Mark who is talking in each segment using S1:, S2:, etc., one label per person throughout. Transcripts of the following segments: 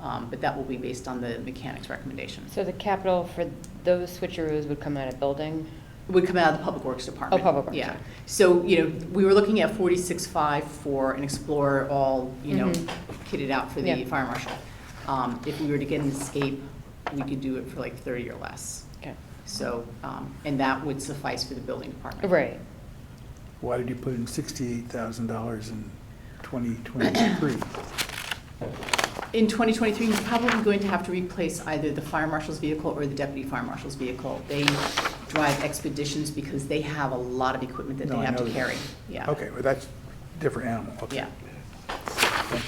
S1: Um, But that will be based on the mechanic's recommendations.
S2: So the capital for those switcheroos would come out of building?
S1: It Would come out of the Public Works Department.
S2: Oh, Public Works,
S1: Yeah.
S2: sorry.
S1: So, you know, we were looking at forty-six-five for an Explorer, all, you know,
S2: Mhm.
S1: kitted out for the
S2: Yeah.
S1: fire marshal. Um, If we were to get an escape, we could do it for like thirty or less.
S2: Okay.
S1: So, um, and that would suffice for the building department.
S2: Right.
S3: Why did you put in sixty-eight thousand dollars in twenty twenty-three?
S1: In 2023, we're probably going to have to replace either the fire marshal's vehicle or the deputy fire marshal's vehicle. They drive expeditions because they have a lot of equipment that
S3: No,
S1: they
S3: I
S1: have to
S3: know that.
S1: carry. Yeah.
S3: Okay, well, that's different animal. Okay.
S1: Yeah.
S3: Thank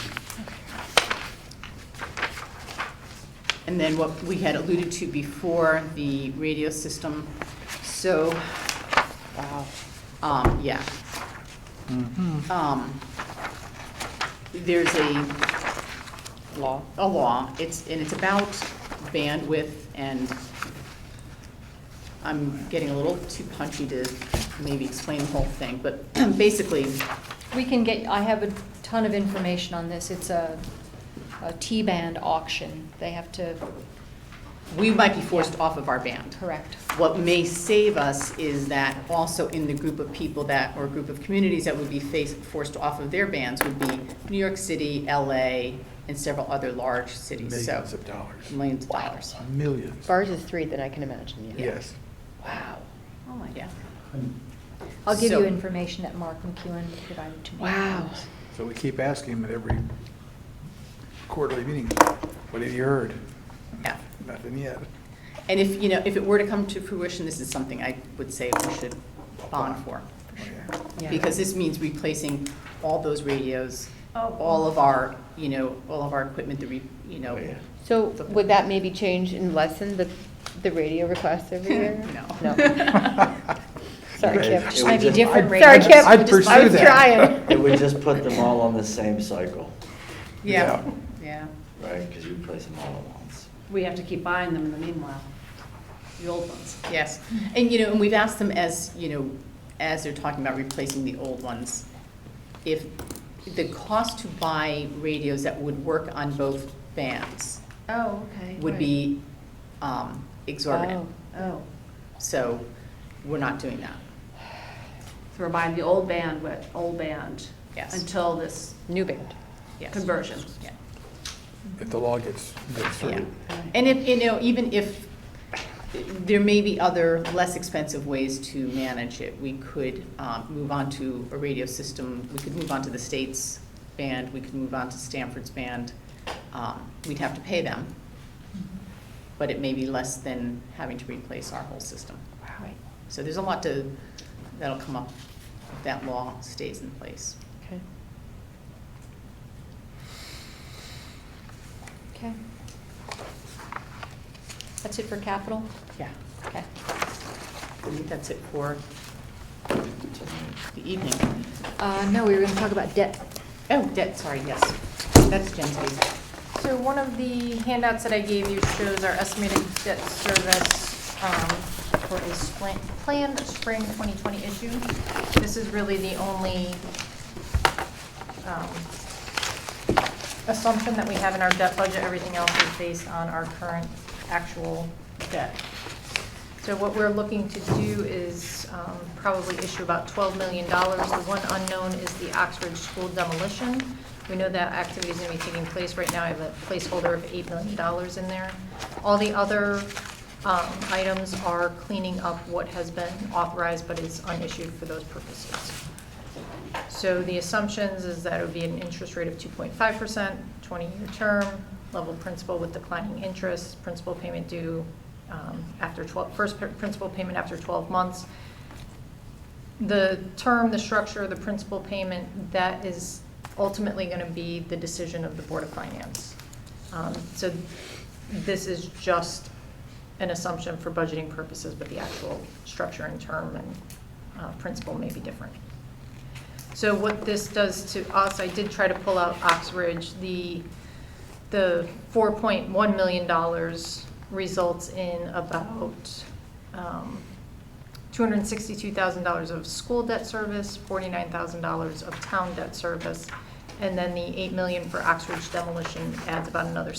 S3: you.
S1: And then what we had alluded to before, the radio system. So, uh,
S2: Wow.
S1: um, yeah. Um, There's a
S2: Law.
S1: a law, it's, and it's about bandwidth, and I'm getting a little too punchy to maybe explain the whole thing, but basically,
S4: We can get, I have a ton of information on this. It's a, a T-band auction. They have to
S1: we might be forced off of our band.
S4: correct.
S1: What may save us is that also in the group of people that, or group of communities that would be faced, forced off of their bans would be New York City, LA, and several other large cities, so,
S3: Millions of dollars.
S1: millions of dollars.
S3: Millions.
S2: Bars is three that I can imagine, yeah.
S3: Yes.
S2: Wow.
S1: Oh, my God.
S4: I'll give you
S1: So-
S4: information that Mark McEwen provided to me.
S2: Wow.
S3: So we keep asking him at every quarterly meeting, what have you heard?
S1: Yeah.
S3: Nothing yet.
S1: And if, you know, if it were to come to fruition, this is something I would say we should bond for.
S3: Okay.
S2: Yeah.
S1: Because this means replacing all those radios,
S4: Oh.
S1: all of our, you know, all of our equipment, the, re you
S3: Oh,
S1: know,
S2: So would that maybe change and lessen the, the radio requests every year?
S1: No.
S2: Sorry, Kip.
S4: Just might be different
S2: Sorry,
S4: rates.
S2: Kip.
S3: I'd pursue
S2: I was
S3: that.
S2: trying.
S5: It would just put them all on the same cycle,
S1: yeah, yeah.
S5: right? Because you place them all at once.
S6: We have to keep buying them in the meanwhile, the old ones.
S1: Yes, and you know, and we've asked them as, you know, as they're talking about replacing the old ones, if the cost to buy radios that would work on both bands
S6: Oh, okay.
S1: would be um, exorbitant.
S6: Oh,
S1: So we're not doing that.
S6: so we're buying the old band with old band.
S1: Yes.
S6: Until this
S2: New band.
S1: Yes.
S6: conversion.
S1: Yeah.
S3: If the law gets, gets
S1: Yeah,
S3: through.
S1: and if, you know, even if, there may be other less expensive ways to manage it. We could um, move on to a radio system, we could move on to the state's band, we could move on to Stanford's band. Um, We'd have to pay them, but it may be less than having to replace our whole system.
S4: Right.
S1: So there's a lot to, that'll come up if that law stays in place.
S2: Okay.
S4: Okay. That's it for capital?
S1: Yeah.
S4: Okay.
S1: I think that's it for the evening.
S4: Uh, no, we were gonna talk about debt.
S1: Oh, debt, sorry, yes. That's Jen's page.
S7: So one of the handouts that I gave you shows our estimated debt service um, for a spring, planned spring 2020 issue. This is really the only um, assumption that we have in our debt budget. Everything else is based on our current actual debt. So what we're looking to do is um, probably issue about $12 million. The one unknown is the Oxford School demolition. We know that activity is going to be taking place right now. I have a placeholder of $8 million in there. All the other um, items are cleaning up what has been authorized but is unissued for those purposes. So the assumptions is that it would be an interest rate of 2.5%, 20-year term, level principal with declining interest, principal payment due um, after 12, first pr- principal payment after 12 months. The term, the structure, the principal payment, that is ultimately going to be the decision of the Board of Finance. Um, So this is just an assumption for budgeting purposes, but the actual structure and term and uh, principal may be different. So what this does to us, I did try to pull out Oxbridge, the, the four point one million dollars results in about, um, two hundred and sixty-two thousand dollars of school debt service, forty-nine thousand dollars of town debt service, and then the eight million for Oxbridge demolition adds about another